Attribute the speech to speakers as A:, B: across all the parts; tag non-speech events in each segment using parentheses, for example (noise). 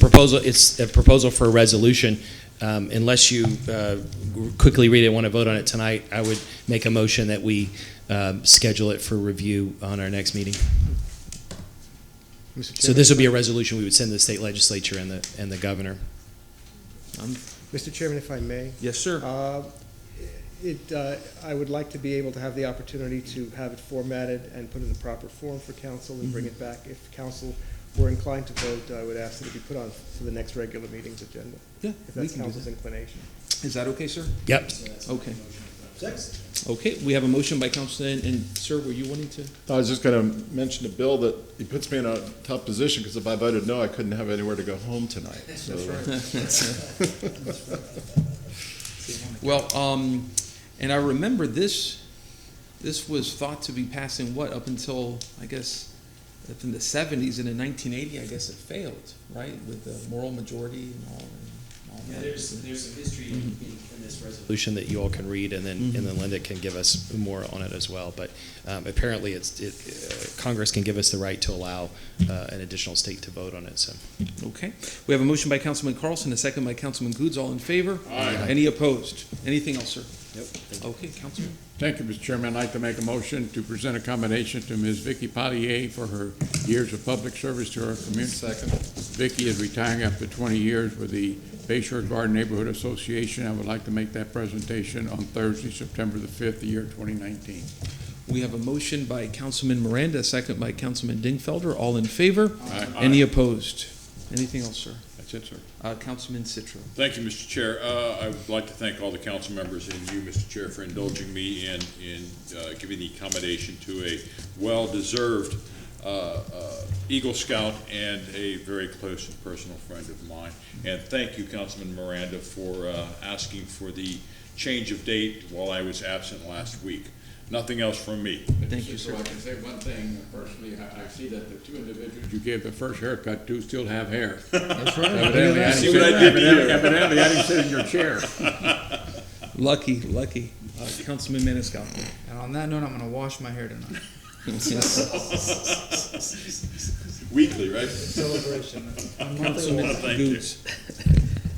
A: proposal, it's a proposal for a resolution. Um, Unless you uh, quickly read it, want to vote on it tonight, I would make a motion that we um, schedule it for review on our next meeting.
B: Mr.
A: So
B: Chairman,
A: this would be a resolution we would send to the state legislature and the, and the governor.
B: Mr. Chairman, if I may,
C: Yes, sir.
B: uh, it, uh, I would like to be able to have the opportunity to have it formatted and put in the proper form for council and bring
C: Mm-hmm.
B: it back. If council were inclined to vote, I would ask that it be put on for the next regular meeting's agenda,
C: Yeah,
B: if
C: we
B: that's
C: can do
B: council's inclination.
C: that. Is that okay, sir?
A: Yep.
C: Okay. Okay, we have a motion by Councilman, and sir, were you wanting to?
D: I was just going to mention to Bill that he puts me in a tough position because if I voted no, I couldn't have anywhere to go home tonight. So
C: Well, um, and I remember this, this was thought to be passed in what, up until, I guess, up in the seventies, and in nineteen eighty, I guess it failed, right, with the moral majority and all, and all that.
A: there's some history in this resolution. Mm-hmm. That you all can read, and then, and then Linda can give us more on it as well. But um, apparently, it's, it, uh, Congress can give us the right to allow uh, an additional state to vote on it, so.
C: Okay, we have a motion by Councilman Carlson, a second by Councilman Goods, all in favor? Aye. Any opposed? Anything else, sir? Nope. Okay, Councilman?
E: Thank you, Mr. Chairman. I'd like to make a motion to present a commendation to Ms. Vicky Potier for her years of public service to our community.
D: second,
E: Vicky is retiring after 20 years with the Bayshore Garden Neighborhood Association. I would like to make that presentation on Thursday, September the 5th, the year 2019.
C: We have a motion by Councilman Miranda, a second by Councilman Dingfelder. All in favor?
E: Aye.
C: Any opposed? Anything else, sir?
E: That's it, sir.
C: Uh, Councilman Citro.
F: Thank you, Mr. Chair. Uh, I would like to thank all the council members and you, Mr. Chair, for indulging me in, in uh, giving the commendation to a well-deserved uh, uh, Eagle Scout and a very close and personal friend of mine. And thank you, Councilman Miranda, for uh, asking for the change of date while I was absent last week. Nothing else from me.
C: Thank you, sir.
E: I can say one thing personally. I, I see that the two individuals you gave the first haircut to still have hair. That's right. Evidently, I
F: See what I did to you.
E: evidently, I didn't sit in your chair.
C: Lucky, lucky. Uh, Councilman Maniscalco.
G: And on that note, I'm gonna wash my hair tonight.
F: Weekly,
B: (laughs)
F: right?
G: Celebration.
C: Councilman
F: Thank you.
C: Goods.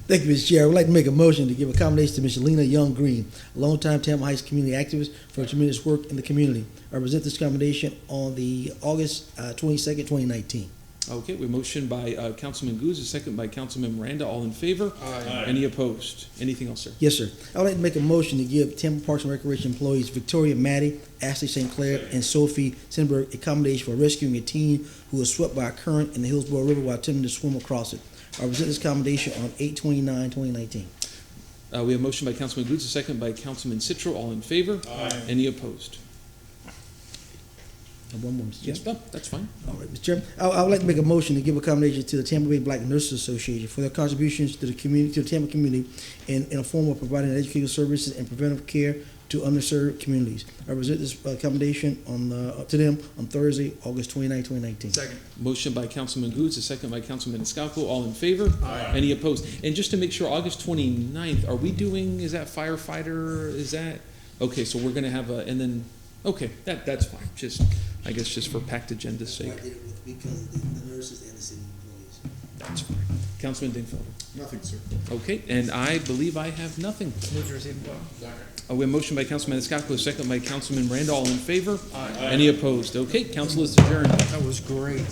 H: Thank you, Mr. Chair. I would like to make a motion to give a commendation to Ms. Lena Young Green, a longtime Tampa Heights community activist for her tremendous work in the community. I present this commendation on the August uh, twenty-second, twenty nineteen.
C: Okay, we motion by uh, Councilman Goods, a second by Councilman Miranda. All in favor? Aye. Any opposed? Anything else, sir?
H: Yes, sir. I would like to make a motion to give Tampa Parks and Recreation employees Victoria Matty, Ashley St. Clair, and Sophie Sinberg a commendation for rescuing a teen who was swept by a current in the Hillsborough River while attempting to swim across it. I present this commendation on 8 twenty nineteen.
C: Uh, we have motion by Councilman Goods, a second by Councilman Citro. All in favor? Aye. Any opposed?
H: And one more, Mr. Chair.
C: Yes, no, that's fine.
H: All right, Mr. Chairman, I, I would like to make a motion to give a commendation to the Tampa Bay Black Nurses Association for their contributions to the community, to the Tampa community, in, in a form of providing educational services and preventive care to underserved communities. I present this uh, commendation on uh, to them on Thursday, August 29, 2019.
G: Second.
C: Motion by Councilman Goods, a second by Councilman Maniscalco. All in favor? Aye. Any opposed? And just to make sure, August 29th, are we doing, is that firefighter, is that? Okay, so we're gonna have a, and then, okay, that, that's fine, just, I guess just for packed agenda's sake.
H: Because the nurses and the city employees.
C: That's fine. Councilman Dingfelder?
D: nothing, sir.
C: Okay, and I believe I have nothing.
G: Move to receive and file.
C: Uh, we have motion by Councilman Maniscalco, a second by Councilman Randall. All in favor? Aye. Any opposed? Okay, council is adjourned.
G: That was great.